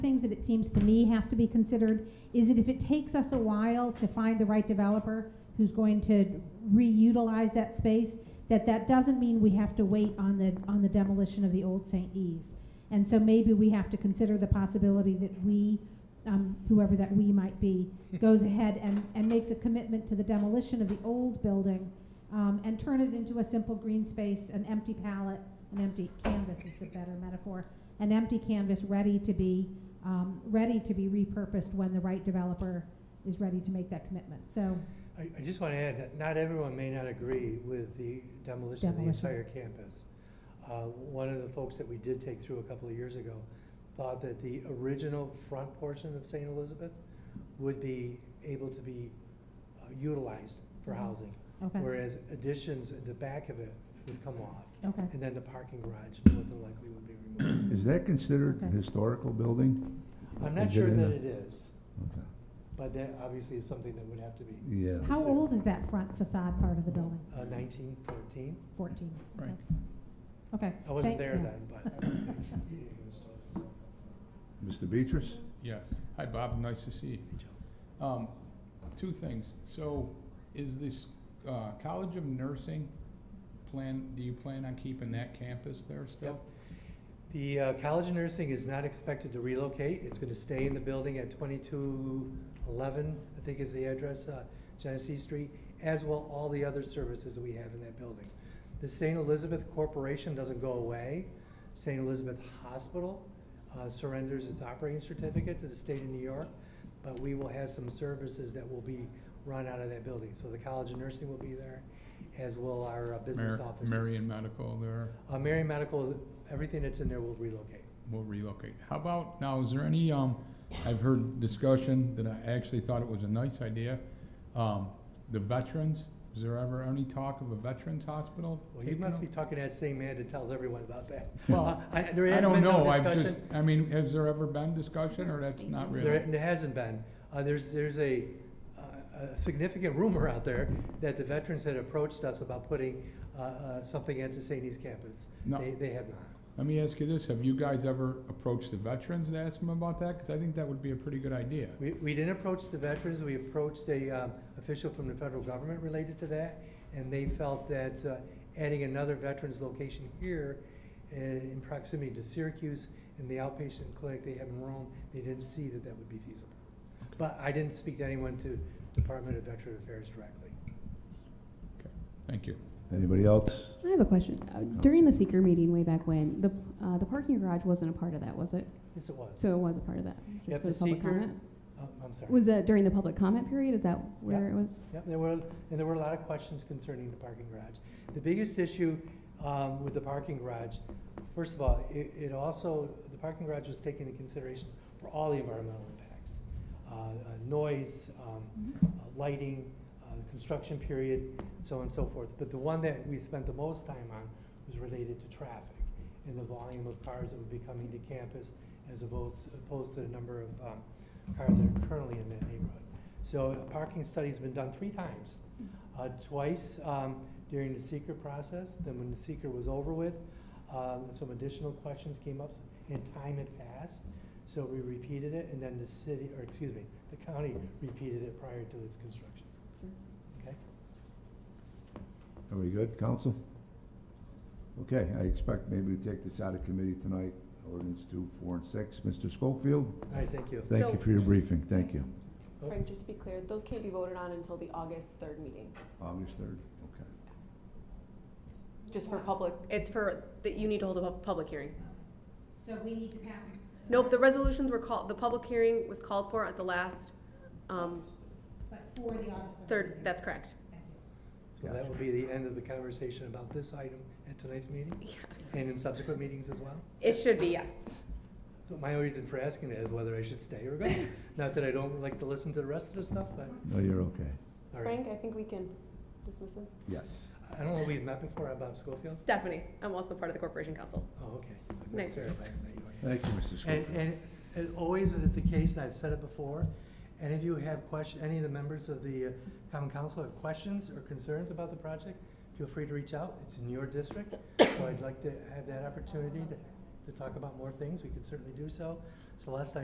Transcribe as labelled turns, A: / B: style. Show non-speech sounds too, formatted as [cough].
A: things that it seems to me has to be considered is that if it takes us a while to find the right developer who's going to reutilize that space, that that doesn't mean we have to wait on the, on the demolition of the old St. E's. And so maybe we have to consider the possibility that we, um, whoever that we might be, goes ahead and, and makes a commitment to the demolition of the old building, um, and turn it into a simple green space, an empty palette, an empty canvas is the better metaphor, an empty canvas ready to be, um, ready to be repurposed when the right developer is ready to make that commitment, so,
B: I, I just want to add that not everyone may not agree with the demolition of the
A: Demolition.
B: entire campus. Uh, One of the folks that we did take through a couple of years ago thought that the original front portion of St. Elizabeth would be able to be uh, utilized for
A: Mhm.
B: housing,
A: okay,
B: whereas additions at the back of it would come off,
A: okay.
B: and then the parking garage more than likely would be removed.
C: Is that considered a
A: Okay.
C: historical building?
B: I'm not
C: Is it
B: sure
C: in
B: that
C: the-
B: it is,
C: Okay.
B: but that obviously is something that would have to be
C: Yeah.
A: How old is that front facade part of the building?
B: uh, 1914.
A: Fourteen? okay.
D: Right.
A: Okay.
B: I wasn't
A: thank-
B: there
A: yeah.
B: then, but.
C: Mr. Beatrice?
D: Yes. Hi, Bob. Nice to see you. Um, two things. So is this, uh, College of Nursing plan, do you plan on keeping that campus there still?
B: The uh, College of Nursing is not expected to relocate. It's going to stay in the building at 2211, I think is the address, uh, Genesee Street, as will all the other services that we have in that building. The St. Elizabeth Corporation doesn't go away. St. Elizabeth Hospital uh, surrenders its operating certificate to the state of New York, but we will have some services that will be run out of that building. So the College of Nursing will be there, as will our uh, business
D: Mar-
B: offices.
D: Marion Medical there
B: Uh, Marion Medical, everything that's in there will relocate.
D: will relocate. How about, now, is there any, um, I've heard discussion that I actually thought it was a nice idea. Um, the veterans, is there ever any talk of a veterans hospital?
B: Well, you
D: taking
B: must
D: o-
B: be talking to that same man that tells everyone about that.
D: [laughs] Well,
B: I, there
D: I
B: has
D: don't
B: been no
D: know. I've just,
B: discussion.
D: I mean, has there ever been discussion or that's not really?
B: There, there hasn't been. Uh, there's, there's a, uh, a significant rumor out there that the veterans had approached us about putting, uh, uh, something at the St. East campus.
D: No.
B: They, they have not.
D: Let me ask you this, have you guys ever approached the veterans and asked them about that? Because I think that would be a pretty good idea.
B: We, we didn't approach the veterans, we approached a um, official from the federal government related to that, and they felt that uh, adding another veterans location here in in proximity to Syracuse and the outpatient clinic they have in Rome, they didn't see that that would be feasible. But I didn't speak to anyone to Department of Veteran Affairs directly.
D: Thank you.
C: Anybody else?
E: I have a question. Uh, During the seeker meeting way back when, the, uh, the parking garage wasn't a part of that, was it?
B: Yes, it was.
E: So it was a part of that? just
B: Yep,
E: for
B: the
E: public
B: seeker-
E: comment?
B: Oh, I'm sorry.
E: Was that during the public comment period? Is that where it was?
B: Yep, there were, and there were a lot of questions concerning the parking garage. The biggest issue um, with the parking garage, first of all, it it also, the parking garage was taken into consideration for all the environmental impacts. Uh, uh, Noise, um,
A: Mm-hmm.
B: uh, lighting, uh, the construction period, so on and so forth. But the one that we spent the most time on was related to traffic and the volume of cars that would be coming to campus as opposed opposed to the number of um, cars that are currently in that neighborhood. So a parking study's been done three times. Uh, Twice um, during the seeker process, then when the seeker was over with, um, some additional questions came up and time had passed. So we repeated it and then the city, or excuse me, the county repeated it prior to its construction. Okay?
C: Are we good, council? Okay, I expect maybe we take this out of committee tonight, ordinance two, four, and six. Mr. Schofield,
B: All right, thank you.
C: thank you
F: So-
C: for your briefing, thank you.
B: Oh.
F: Frank, just to be clear, those can't be voted on until the August third meeting,
C: August third, okay.
F: just for public, it's for, that you need to hold a pub- public hearing.
A: So we need to pass
F: Nope, the resolutions were called, the public hearing was called for at the last, um,
A: But for the August
F: third, that's correct,
B: So that will be the end of the conversation about this item at tonight's meeting
F: yes.
B: and in subsequent meetings as well.
F: It should be, yes.
B: So my reason for asking that is whether I should stay
F: [laughs]
B: or go. Not that I don't like to listen to the rest of the stuff, but,
C: No, you're okay.
B: all right.
F: Frank, I think we can dismiss him.
C: Yes.
B: I don't know, we've met before, I'm Bob Schofield?
F: Stephanie, I'm also part of the corporation council.
B: Oh, okay.
F: Nice.
B: Sarah, I- I-
C: Thank you, Mr.
B: And,
C: Schofield.
B: and as always is the case, and I've said it before, any of you have question, any of the members of the uh, common council have questions or concerns about the project, feel free to reach out. It's in your district, so I'd like to have that opportunity to, to talk about more things. We could certainly do so. Celeste, I